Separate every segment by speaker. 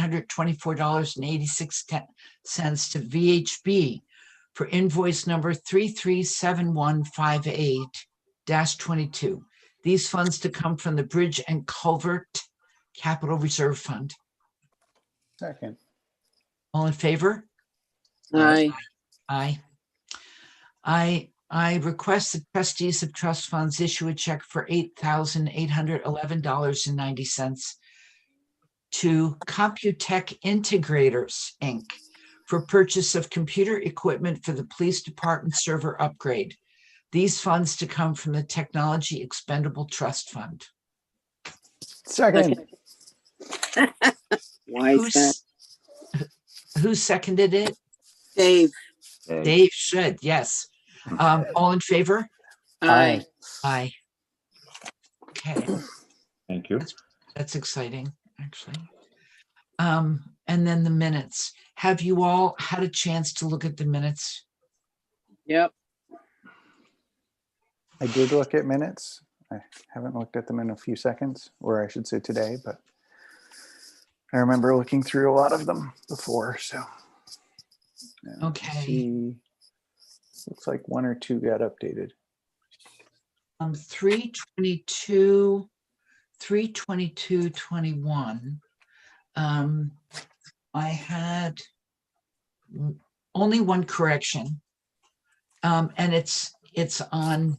Speaker 1: hundred twenty-four dollars and eighty-six cents to VHB for invoice number three-three-seven-one-five-eight twenty-two. These funds to come from the Bridge and Culvert Capital Reserve Fund.
Speaker 2: Second.
Speaker 1: All in favor?
Speaker 3: Aye.
Speaker 1: Aye. I, I request that trustees of trust funds issue a check for eight thousand eight hundred eleven dollars and ninety cents to Computech Integrators, Inc. for purchase of computer equipment for the police department server upgrade. These funds to come from the Technology Expendable Trust Fund.
Speaker 2: Second.
Speaker 3: Why is that?
Speaker 1: Who's- Who seconded it?
Speaker 3: Dave,
Speaker 1: Dave should, yes. Um, all in favor?
Speaker 3: aye.
Speaker 1: Aye. Okay.
Speaker 4: Thank you.
Speaker 1: That's exciting, actually. Um, and then the minutes. Have you all had a chance to look at the minutes?
Speaker 3: Yep,
Speaker 2: I did look at minutes. I haven't looked at them in a few seconds, or I should say today, but I remember looking through a lot of them before, so. Yeah, let's
Speaker 1: Okay.
Speaker 2: see. Looks like one or two got updated.
Speaker 1: Um, three twenty-two, three twenty-two, twenty-one. Um, I had w- only one correction. Um, and it's, it's on,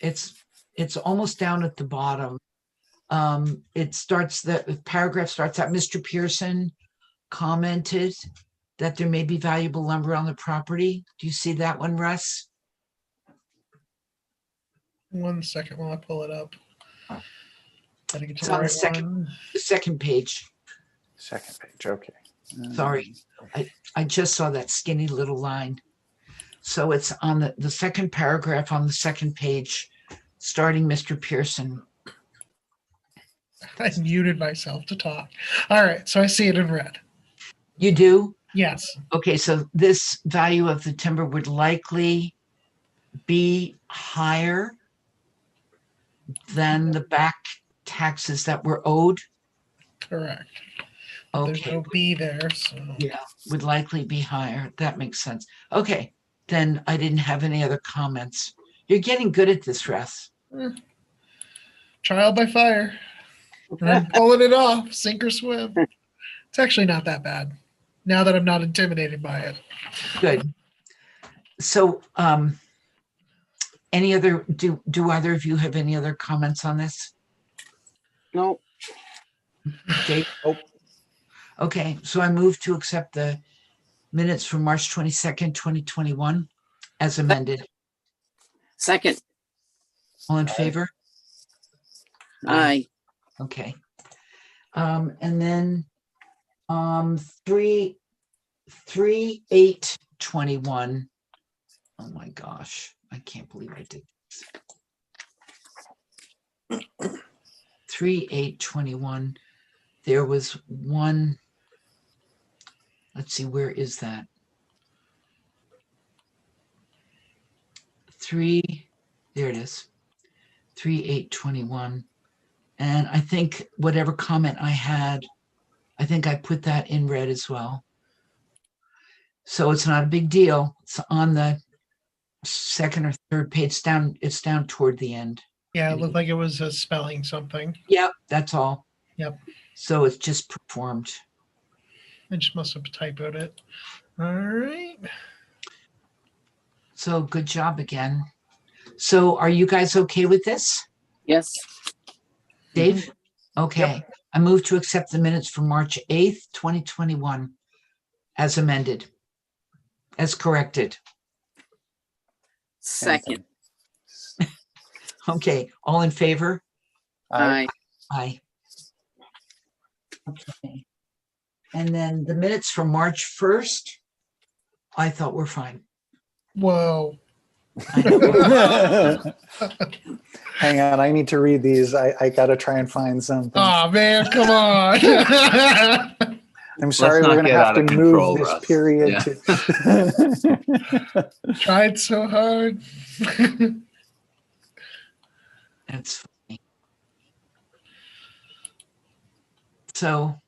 Speaker 1: it's, it's almost down at the bottom. Um, it starts, the paragraph starts out, Mr. Pearson commented that there may be valuable lumber on the property. Do you see that one, Russ?
Speaker 5: One second while I pull it up. I think
Speaker 1: It's
Speaker 5: the
Speaker 1: on the
Speaker 5: right
Speaker 1: second-
Speaker 5: one.
Speaker 1: The second page.
Speaker 2: Second page, okay. Uh,
Speaker 1: Sorry. I just saw that skinny little line. So it's on the, the second paragraph on the second page, starting Mr. Pearson.
Speaker 5: I muted myself to talk. All right, so I see it in red.
Speaker 1: You do?
Speaker 5: Yes,
Speaker 1: Okay, so this value of the timber would likely be higher than the back taxes that were owed.
Speaker 5: correct. There's
Speaker 1: Okay,
Speaker 5: no B there, so
Speaker 1: yeah, would likely be higher. That makes sense. Okay, then I didn't have any other comments. You're getting good at this, Russ.
Speaker 5: trial by fire. I'm pulling it off, sink or swim. It's actually not that bad, now that I'm not intimidated by it.
Speaker 1: Good. So, um, any other, do, do either of you have any other comments on this?
Speaker 3: no,
Speaker 1: Dave?
Speaker 2: Nope.
Speaker 1: Okay, so I move to accept the minutes from March twenty-second, twenty twenty-one as amended.
Speaker 3: second,
Speaker 1: All in favor?
Speaker 3: aye.
Speaker 1: Okay. Um, and then, um, three, three, eight, twenty-one. Oh my gosh, I can't believe I did. this. Three, eight, twenty-one. There was one. Let's see, where is that? Three, there it is. Three, eight, twenty-one. And I think whatever comment I had, I think I put that in red as well. So it's not a big deal. It's on the second or third page It's down. It's down toward the end.
Speaker 5: Yeah, it looked like it was uh, spelling something.
Speaker 1: Yep. That's all.
Speaker 5: Yep.
Speaker 1: So it's just performed.
Speaker 5: I just must have typoed it. All right,
Speaker 1: So good job again. So are you guys okay with this?
Speaker 3: Yes,
Speaker 1: Dave? Okay. I move to accept the minutes for March 8th, 2021 as amended, as corrected.
Speaker 3: second,
Speaker 1: Okay. All in favor?
Speaker 2: I
Speaker 3: aye.
Speaker 1: Aye. Okay. And then the minutes from March first, I thought were fine.
Speaker 5: whoa.
Speaker 1: I know.
Speaker 2: Hang on, I need to read these. I, I gotta try and find something.
Speaker 5: Oh, man, come on.
Speaker 2: I'm sorry,
Speaker 4: not
Speaker 2: we're gonna
Speaker 4: get
Speaker 2: have
Speaker 4: out
Speaker 2: to
Speaker 4: of control,
Speaker 2: move
Speaker 4: Russ.
Speaker 2: this period.
Speaker 4: Yeah.
Speaker 2: to-
Speaker 5: Tried so hard.
Speaker 1: That's funny. So